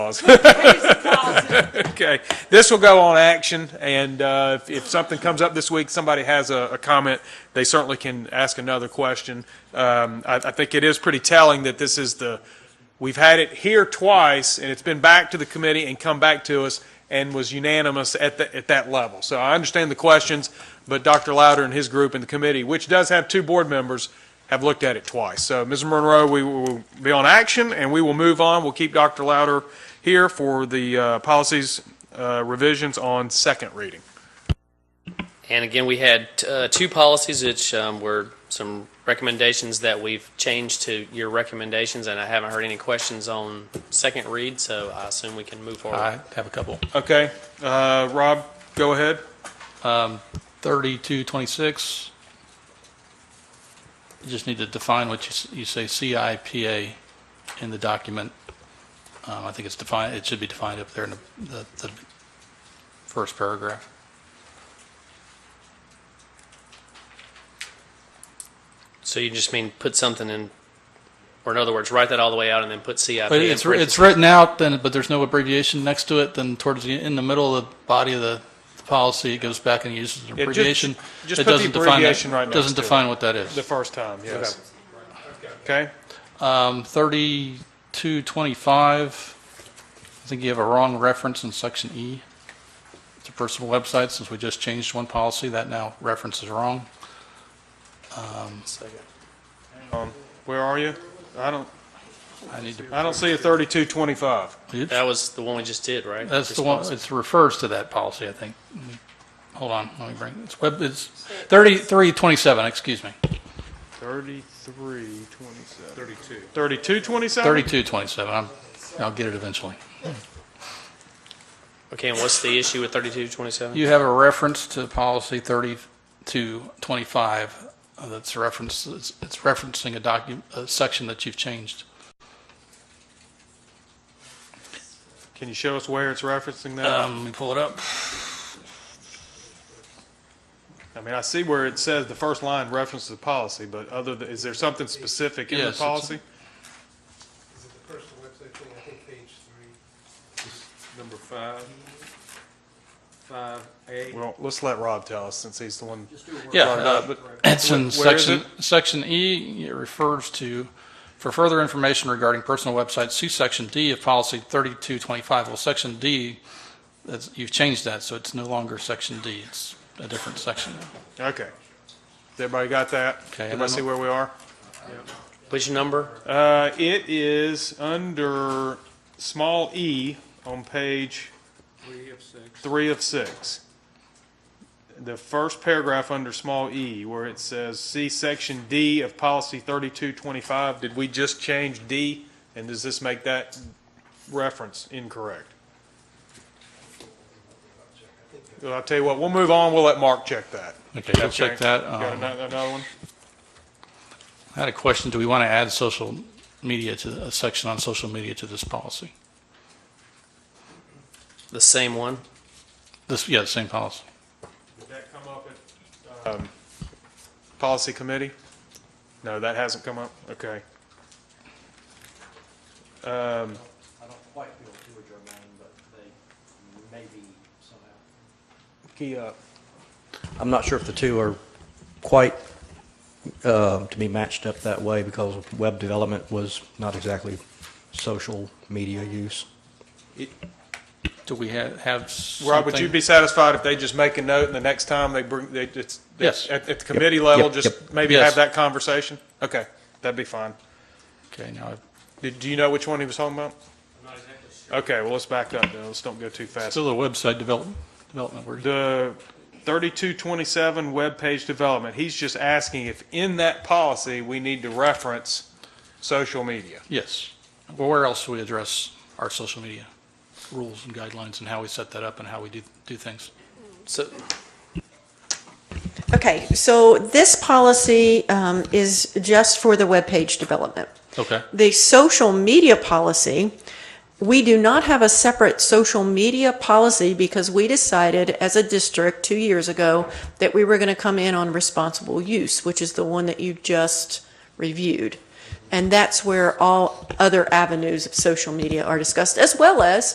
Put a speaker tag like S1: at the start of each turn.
S1: Okay, this will go on action, and uh, if- if something comes up this week, somebody has a a comment, they certainly can ask another question. Um, I I think it is pretty telling that this is the, we've had it here twice, and it's been back to the committee and come back to us, and was unanimous at the- at that level. So I understand the questions, but Dr. Louder and his group and the committee, which does have two board members, have looked at it twice. So, Ms. Monroe, we will be on action, and we will move on. We'll keep Dr. Louder here for the uh, policies uh, revisions on second reading.
S2: And again, we had uh, two policies, which um, were some recommendations that we've changed to your recommendations, and I haven't heard any questions on second read, so I assume we can move forward.
S3: I have a couple.
S1: Okay, uh, Rob, go ahead.
S3: 3226, you just need to define what you s- you say CIPA in the document. Um, I think it's defined, it should be defined up there in the- the the first paragraph.
S2: So you just mean put something in, or in other words, write that all the way out and then put CIP.
S3: But
S2: in
S3: it's,
S2: parentheses.
S3: it's written out, then, but there's no abbreviation next to it, then towards the, in the middle of the body of the the policy, it goes back and uses an
S1: just-
S3: abbreviation.
S1: just
S3: It
S1: put the
S3: doesn't define that-
S1: abbreviation right next
S3: Doesn't
S1: to it.
S3: define what that is.
S1: The first time, yes. Okay,
S3: Um, 3225, I think you have a wrong reference in section E. It's a personal website, since we just changed one policy, that now reference is wrong.
S1: where are you? I don't,
S3: I need to,
S1: I don't see a 3225.
S3: oops,
S2: That was the one we just did, right?
S3: that's the one,
S2: Response.
S3: it refers to that policy, I think. Let me- Hold on, let me bring, it's web, it's 3327, excuse me,
S1: 3327. 32. 3227?
S3: 3227, I'm, I'll get it eventually.
S2: Okay, and what's the issue with thirty-two twenty-seven?
S3: You have a reference to policy 3225 uh, that's referenced, it's it's referencing a document, a section that you've changed.
S1: Can you show us where it's referencing that?
S3: Um, let me pull it up.
S1: I mean, I see where it says the first line references the policy, but other, than is there something specific in the
S3: Yes, it's-
S1: policy?
S4: Is it the personal website thing, I think page three?
S5: Number five, five A.
S1: Well, let's let Rob tell us since he's the one.
S3: Yeah,
S1: brought it up,
S3: uh,
S1: but-
S3: It's
S1: Where
S3: in
S1: is
S3: section, section E, it refers to, for further information regarding personal websites, see section D of policy 3225. Well, section D, that's, you've changed that, so it's no longer section D, it's a different section.
S1: Okay. Has Everybody got that?
S3: Okay, and
S1: Everybody
S3: then-
S1: see where we are?
S2: Which number?
S1: Uh, it is under small e on page
S5: Three of six.
S1: three of six. The first paragraph under small e where it says, see section D of policy 3225. Did we just change D? And does this make that reference incorrect? Well, I'll tell you what, we'll move on. We'll let Mark check that.
S3: Okay, we'll check that.
S1: Got
S3: Um,
S1: ano- another one?
S3: I had a question, do we want to add social media to, a section on social media to this policy?
S2: The same one?
S3: This, yeah, same policy.
S1: Did that come up at, um, policy committee? No, that hasn't come up, okay. Um,
S6: I don't quite feel too germane, but they may be somehow.
S1: key up.
S6: uh, I'm not sure if the two are quite uh, to be matched up that way because web development was not exactly social media use.
S3: Do we have, have
S1: Rob, would you
S3: something-
S1: be satisfied if they just make a note and the next time they bring, they, it's,
S3: Yes.
S1: at, at the committee level,
S6: yep,
S1: just
S6: yep.
S1: maybe
S3: Yes.
S1: have that conversation? Okay, that'd be fine.
S3: Okay, now,
S1: Did, do you know which one he was talking about? Okay, well, let's back up then, let's don't go too fast.
S3: still the website development, development, word.
S1: the 3227 web page development, he's just asking if in that policy, we need to reference social media.
S3: Yes. Well, where else do we address our social media rules and guidelines and how we set that up and how we do, do things?
S2: So,
S7: Okay, so this policy um, is just for the webpage development.
S3: Okay.
S7: The social media policy, we do not have a separate social media policy because we decided as a district two years ago that we were going to come in on responsible use, which is the one that you just reviewed. And that's where all other avenues of social media are discussed, as well as